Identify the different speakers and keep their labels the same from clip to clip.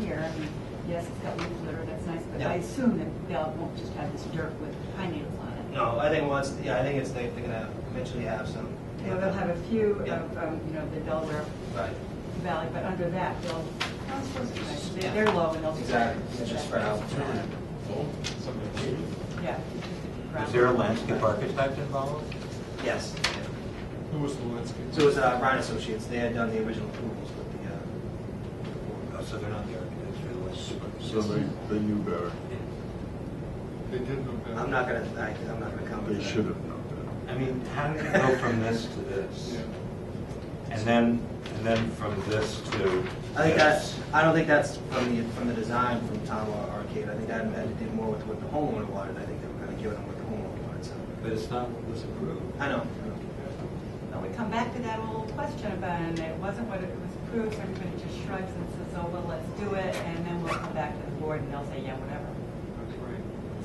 Speaker 1: here, I mean, yes, it's got leaf litter, that's nice, but
Speaker 2: Yeah.
Speaker 1: I assume that Bell won't just have this dirt with pine needles on it.
Speaker 2: No, I think once, yeah, I think it's, they- they're gonna eventually have some.
Speaker 1: You know, they'll have a few of,
Speaker 2: Yeah.
Speaker 1: um, you know, the Delaware
Speaker 2: Right,
Speaker 1: Valley, but under that, they'll, I suppose it's nice. They-
Speaker 2: Yeah.
Speaker 1: they're low and they'll.
Speaker 2: exactly, it's just spread out.
Speaker 1: Yeah. just
Speaker 3: Is there a landscape architect involved?
Speaker 2: Yes. yeah.
Speaker 4: Who was the landscape?
Speaker 2: So it was uh, Brown Associates, they had done the original approvals with the, uh,
Speaker 3: Oh, So they're not the architects, they're the
Speaker 5: So they,
Speaker 3: landscape.
Speaker 5: they knew better.
Speaker 4: They did know better.
Speaker 2: uh, I'm not gonna, I- I'm not gonna comment.
Speaker 5: They should have known better.
Speaker 3: I mean, how did it go from this to this?
Speaker 4: Yeah.
Speaker 3: And then, and then from this to
Speaker 2: I think
Speaker 3: this?
Speaker 2: that's, I don't think that's from the, from the design from Tom or Arcade, I think that had to do more with what the homeowner wanted, I think they were kinda giving them what the homeowner wanted, so.
Speaker 3: But it's not what was approved.
Speaker 2: I know.
Speaker 1: But we come back to that old question about, and it wasn't what it was approved, so everybody just shrugs and says, oh, well, let's do it, and then we'll come back to the board and they'll say, yeah, whatever.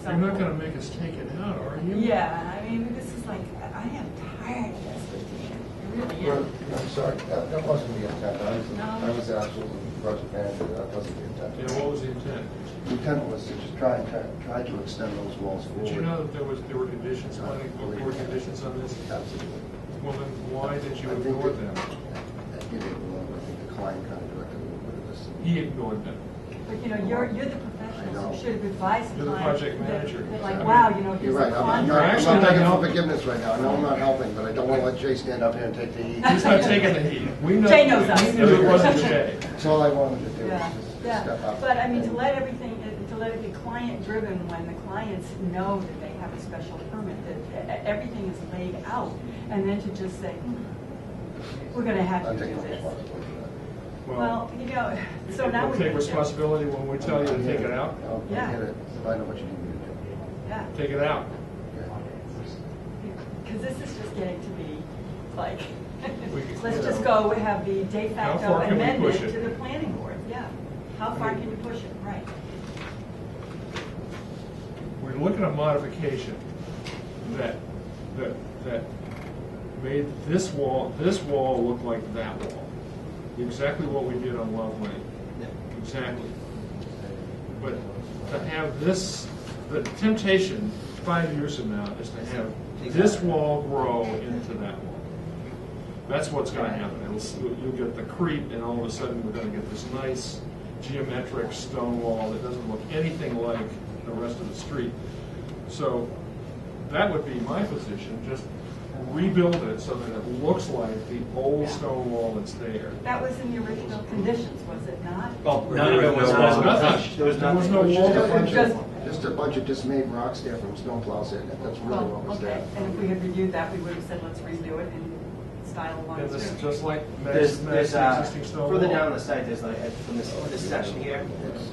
Speaker 4: You're not gonna make us take it out, are
Speaker 1: Mm-hmm.
Speaker 4: you?
Speaker 1: Yeah, I mean, this is like, I am tired of this, Christine. It really
Speaker 6: Well,
Speaker 1: is.
Speaker 6: I'm sorry, that that wasn't the intent. I was,
Speaker 1: No.
Speaker 6: I was actually project manager, that wasn't the
Speaker 4: Yeah,
Speaker 6: intent.
Speaker 4: what was the intent?
Speaker 6: The intent was to just try and, try try to extend those walls forward.
Speaker 4: Did you know that there was, there were conditions, on it, there were conditions on this?
Speaker 6: Absolutely.
Speaker 4: Well, then why did you
Speaker 6: I think
Speaker 4: ignore them?
Speaker 6: that- I give it alone, I think the client kind of directed a little bit of this.
Speaker 4: He ignored them.
Speaker 1: But, you know, you're, you're the
Speaker 6: I know.
Speaker 1: professional, so you should have advised the
Speaker 4: You're the
Speaker 1: client
Speaker 4: project
Speaker 1: that-
Speaker 4: manager.
Speaker 1: that Like, wow, you know,
Speaker 6: You're
Speaker 1: here's a
Speaker 6: right, I'm not,
Speaker 1: contract.
Speaker 6: I'm not
Speaker 4: Actually,
Speaker 6: begging
Speaker 4: no.
Speaker 6: for forgiveness right now, I know I'm not helping, but I don't want to let Jay stand up here and take the heat.
Speaker 4: He's not taking the heat. We know,
Speaker 1: Jay knows us.
Speaker 4: we knew it wasn't Jay.
Speaker 6: That's all I wanted to do, was
Speaker 1: Yeah,
Speaker 6: just step
Speaker 1: yeah,
Speaker 6: up.
Speaker 1: but I mean, to
Speaker 6: and-
Speaker 1: let everything, uh, to let it be client-driven when the clients know that they have a special permit, that e- everything is laid out, and then to just say, "Hmm, we're gonna have
Speaker 6: I'll
Speaker 1: to do
Speaker 6: take my
Speaker 1: this.
Speaker 6: responsibility for that.
Speaker 1: Well, you know, so now
Speaker 4: We'll
Speaker 1: we.
Speaker 4: take responsibility when we tell you to take it out,
Speaker 6: I'll
Speaker 1: Yeah.
Speaker 6: get it, I know what you need me to do.
Speaker 1: Yeah,
Speaker 4: take it out.
Speaker 1: because this is just getting to be like,
Speaker 4: We could-
Speaker 1: let's just go, we have the de
Speaker 4: How
Speaker 1: facto
Speaker 4: far can we
Speaker 1: amendment
Speaker 4: push
Speaker 1: to
Speaker 4: it?
Speaker 1: the planning board, yeah. How far can you push it, right?
Speaker 4: We're looking at a modification that, that, that made this wall, this wall look like that wall. Exactly what we did on Love Lane,
Speaker 2: Yeah.
Speaker 4: exactly. But to have this, the temptation five years from now is to have this wall grow into that wall. That's what's gonna happen. It'll, s- you'll get the creep, and all of a sudden, we're gonna get this nice geometric stone wall that doesn't look anything like the rest of the street. So that would be my position, just rebuild it so that it looks like the old stone wall that's there.
Speaker 1: That was in the original conditions, was it not?
Speaker 2: Well,
Speaker 3: There
Speaker 2: none of it was,
Speaker 3: was no
Speaker 2: there was
Speaker 3: wall.
Speaker 2: nothing. There was
Speaker 4: There was
Speaker 2: nothing.
Speaker 4: no
Speaker 6: Just
Speaker 4: wall.
Speaker 6: a bunch
Speaker 1: Just-
Speaker 6: of- Just a bunch of dismayed rocks there from snowplows in it, that's really what
Speaker 1: Well,
Speaker 6: was
Speaker 1: okay,
Speaker 6: there.
Speaker 1: and if we had reviewed that, we would have said, let's redo it in style one,
Speaker 4: And this is
Speaker 1: two.
Speaker 4: just like
Speaker 2: There's,
Speaker 4: Matt's,
Speaker 2: there's,
Speaker 4: Matt's
Speaker 2: uh,
Speaker 4: existing stone wall.
Speaker 2: further down the site, there's like, uh, from this, this section here,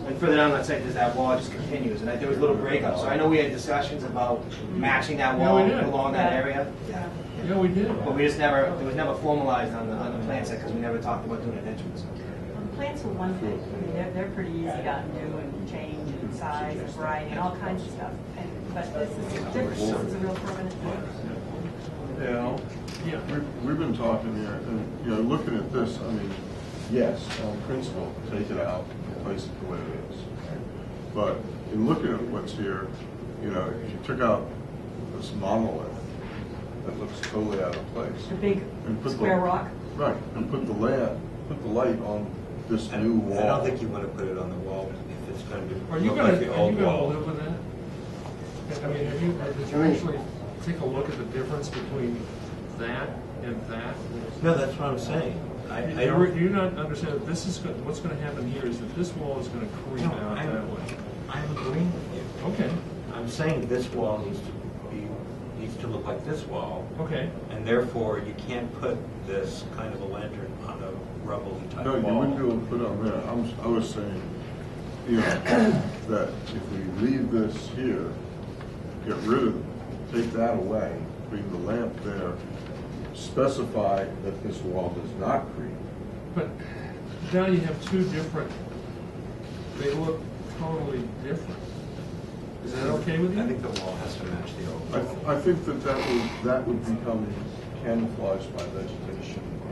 Speaker 2: and further down that site, there's that wall just continues, and I- there was little breakups, so I know we had discussions about matching that
Speaker 4: Yeah,
Speaker 2: wall
Speaker 4: we did.
Speaker 2: along that
Speaker 1: Yeah.
Speaker 2: area.
Speaker 1: Yeah.
Speaker 4: Yeah, we did.
Speaker 2: But we just never, it was never formalized on the, on the plan set, because we never talked about doing an entrance.
Speaker 1: Well, the Plants were one thing, I mean, they're, they're pretty easy to undo and change and size and variety and all kinds of stuff, and, but this is different, this is a real permanent thing.
Speaker 4: Yeah. Yeah.
Speaker 5: We've, we've been talking here, and, you know, looking at this, I mean, yes, on principle, take it out, replace it the way it is. But in looking at what's here, you know, if you took out this monolith that looks totally out of place,
Speaker 1: The big
Speaker 5: And put the-
Speaker 1: square rock,
Speaker 5: right, and put the land, put the light on this
Speaker 3: I
Speaker 5: new
Speaker 3: don't-
Speaker 5: wall.
Speaker 3: I don't think you want to put it on the wall if it's going to
Speaker 4: Are you
Speaker 3: look
Speaker 4: gonna,
Speaker 3: like
Speaker 4: are
Speaker 3: the
Speaker 4: you
Speaker 3: old
Speaker 4: gonna
Speaker 3: wall.
Speaker 4: live with that? I mean, have you, uh, did you
Speaker 6: I mean-
Speaker 4: actually take a look at the difference between that and that?
Speaker 3: No, that's what I'm saying. I, I
Speaker 4: You re-
Speaker 3: don't,
Speaker 4: Do you not understand that this is, go- what's gonna happen here is that this wall is gonna creep
Speaker 3: No,
Speaker 4: out
Speaker 3: I-
Speaker 4: that way?
Speaker 3: I'm agreeing with you.
Speaker 4: Okay,
Speaker 3: I'm saying this wall needs to be, needs to look like this wall,
Speaker 4: okay.
Speaker 3: and therefore you can't put this kind of a lantern on a rubble type
Speaker 5: No,
Speaker 3: wall.
Speaker 5: you wouldn't be able to put it on there. I'm, I was saying, you know, that if we leave this here, get rid of, take that away, bring the lamp there, specify that this wall does not creep.
Speaker 4: But now you have two different, they look totally different. Is that okay with
Speaker 3: I
Speaker 4: you?
Speaker 3: think the wall has to match the old
Speaker 5: I,
Speaker 3: wall.
Speaker 5: I think that that would, that would become camouflaged by vegetation